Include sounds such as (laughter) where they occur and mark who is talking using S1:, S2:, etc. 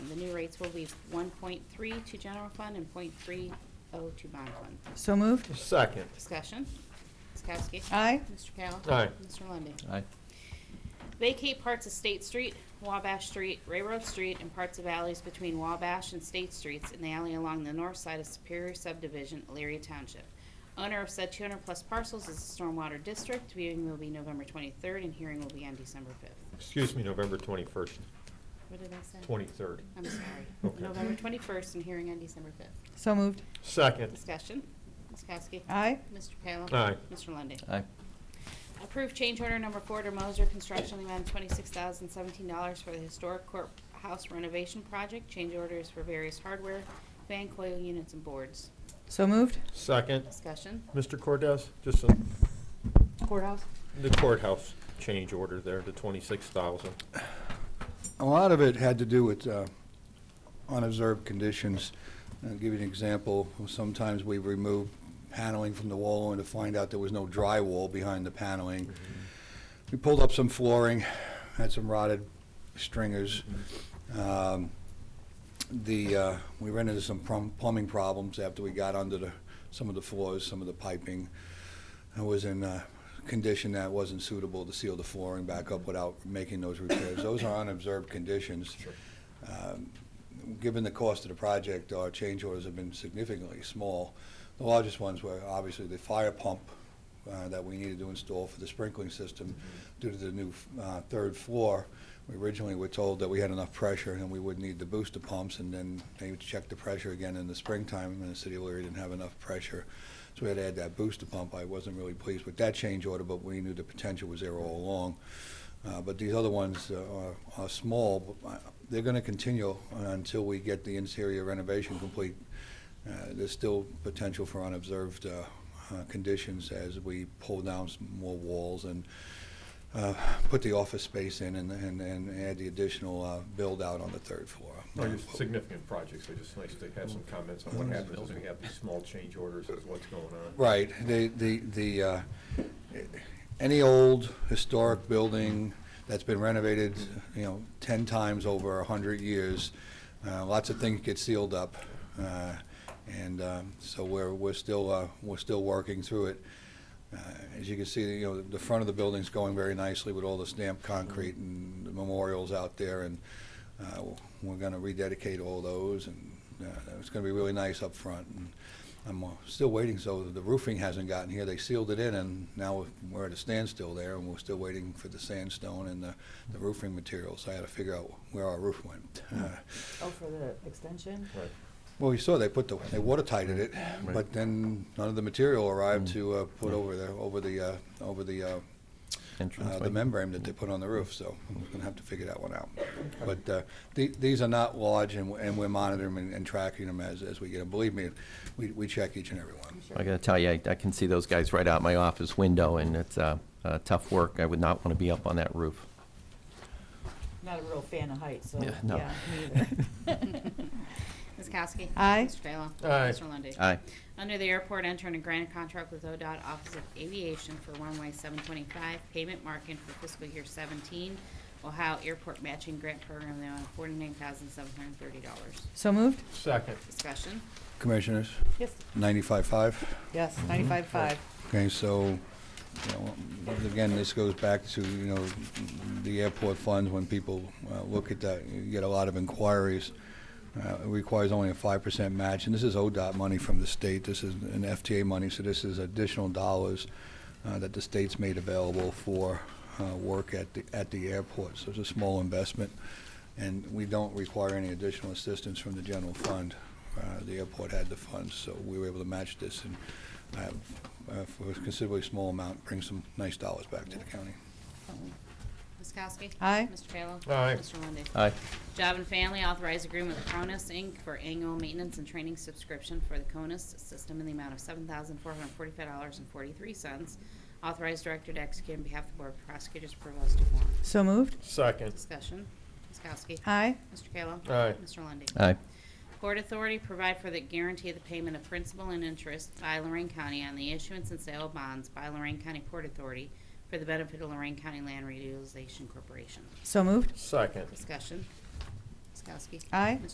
S1: new rates will be 1.3 to general fund and .30 to bond fund.
S2: So moved.
S3: Second.
S1: Discussion. Ms. Kowski.
S2: Aye.
S1: Mr. Kayla.
S3: Aye.
S1: Mr. Lundey.
S4: aye,
S1: Vacate parts of State Street, Wabash Street, Railroad Street, and parts of alleys between Wabash and State Streets in the alley along the north side of Superior Subdivision, Elyria Township. Owner of said 200-plus parcels is the Stormwater District. Viewing will be November 23rd, and hearing will be on December 5th.
S3: Excuse me, November 21st,
S1: What did I say?
S3: 23rd.
S1: I'm sorry.
S3: Okay.
S1: November 21st, and hearing on December 5th.
S2: So moved.
S3: Second.
S1: Discussion. Ms. Kowski.
S2: Aye.
S1: Mr. Kayla.
S3: Aye.
S1: Mr. Lundey.
S4: aye,
S1: Approve change order number four to Moser Construction, the amount of twenty-six thousand seventeen dollars for the historic courthouse renovation project. Change orders for various hardware, fan coil units and boards.
S2: So moved.
S3: Second.
S1: Discussion.
S3: Mr. Cordez, just a-
S1: Courthouse.
S3: the courthouse change order there, the 26,000.
S5: A lot of it had to do with uh, unobserved conditions. I'll give you an example. Sometimes we remove paneling from the wall only to find out there was no drywall behind the paneling. We pulled up some flooring, had some rotted stringers. Um, The, uh, we ran into some plum- plumbing problems after we got under the, some of the floors, some of the piping. I was in a condition that wasn't suitable to seal the flooring back up without making those repairs. Those are unobserved conditions. Um, Given the cost of the project, our change orders have been significantly small. The largest ones were obviously the fire pump uh, that we needed to install for the sprinkling system due to the new uh, third floor. We originally were told that we had enough pressure and we would need the booster pumps, and then they checked the pressure again in the springtime, and the city of Elyria didn't have enough pressure. So we had to add that booster pump. I wasn't really pleased with that change order, but we knew the potential was there all along. Uh, But these other ones uh, are, are small, but uh, they're going to continue until we get the interior renovation complete. Uh, There's still potential for unobserved uh, uh, conditions as we pull down some more walls and uh, put the office space in and, and, and add the additional uh, build-out on the third floor.
S3: significant projects, so just nice to have some comments on what happens as we have these small change orders, is what's going on.
S5: Right, the, the, the, uh, any old historic building that's been renovated, you know, ten times over a hundred years, uh, lots of things get sealed up. uh, And, um, so we're, we're still, uh, we're still working through it. Uh, As you can see, you know, the front of the building's going very nicely with all the stamped concrete and the memorials out there, and uh, we're going to rededicate all those, and uh, it's going to be really nice up front. And I'm uh, still waiting, so the roofing hasn't gotten here. They sealed it in, and now we're at a standstill there, and we're still waiting for the sandstone and the the roofing materials. I had to figure out where our roof went. Uh,
S6: Oh, for the extension?
S5: Well, you saw they put the, they watertighted it,
S4: Right.
S5: but then none of the material arrived to uh, put over the, over the, uh, over the uh,
S4: entrance.
S5: uh, the membrane that they put on the roof, so we're gonna have to figure that one out. But uh, the- these are not large, and we're- and we're monitoring and- and tracking them as, as we get them. Believe me, we, we check each and every one.
S4: I gotta tell you, I, I can see those guys right out my office window, and it's, uh, uh, tough work. I would not wanna be up on that roof.
S6: Not a real fan of heights, so,
S4: Yeah, no.
S6: yeah, me either.
S1: Ms. Kowski.
S2: Aye.
S1: Mr. Kayla.
S3: Aye.
S1: Mr. Lundey.
S4: Aye,
S1: Under the airport, enter in a grant contract with ODOT Office of Aviation for runway seven twenty-five payment marking for fiscal year seventeen Ohio Airport Matching Grant Program, the amount of forty-nine thousand seven hundred and thirty dollars.
S2: (laughs) So moved.
S3: Second.
S1: Discussion.
S5: Commissioners,
S6: Yes,
S5: ninety-five-five?
S6: yes, ninety-five, five.
S5: Okay, so, you know, again, this goes back to, you know, the airport funds, when people uh, look at that, you get a lot of inquiries. Uh, It requires only a five percent match, and this is ODOT money from the state, this is an FTA money, so this is additional dollars uh, that the state's made available for uh, work at the, at the airport, so it's a small investment, and we don't require any additional assistance from the general fund. Uh, The airport had the funds, so we were able to match this, and uh, uh, for a considerably small amount, bring some nice dollars back to the county.
S1: Ms. Kowski.
S2: Aye.
S1: Mr. Kayla.
S3: Aye.
S1: Mr. Lundey.
S4: aye,
S1: Job and Family authorized agreement with Cronus Inc. for annual maintenance and training subscription for the CONUS system in the amount of seven thousand four hundred forty-five dollars and forty-three cents. Authorized director to execute on behalf of the Board of Prosecutors, Provost Warren.
S2: So moved.
S3: Second.
S1: Discussion. Ms. Kowski.
S2: Aye.
S1: Mr. Kayla.
S3: Aye.
S1: Mr. Lundey.
S4: aye,
S1: Port Authority provide for the guarantee of the payment of principal and interest by Lorraine County on the issuance and sale of bonds by Lorraine County Port Authority for the benefit of Lorraine County Land Reutilization Corporation.
S2: So moved.
S3: Second.
S1: Discussion. Ms. Kowski.
S2: Aye.
S1: Mr.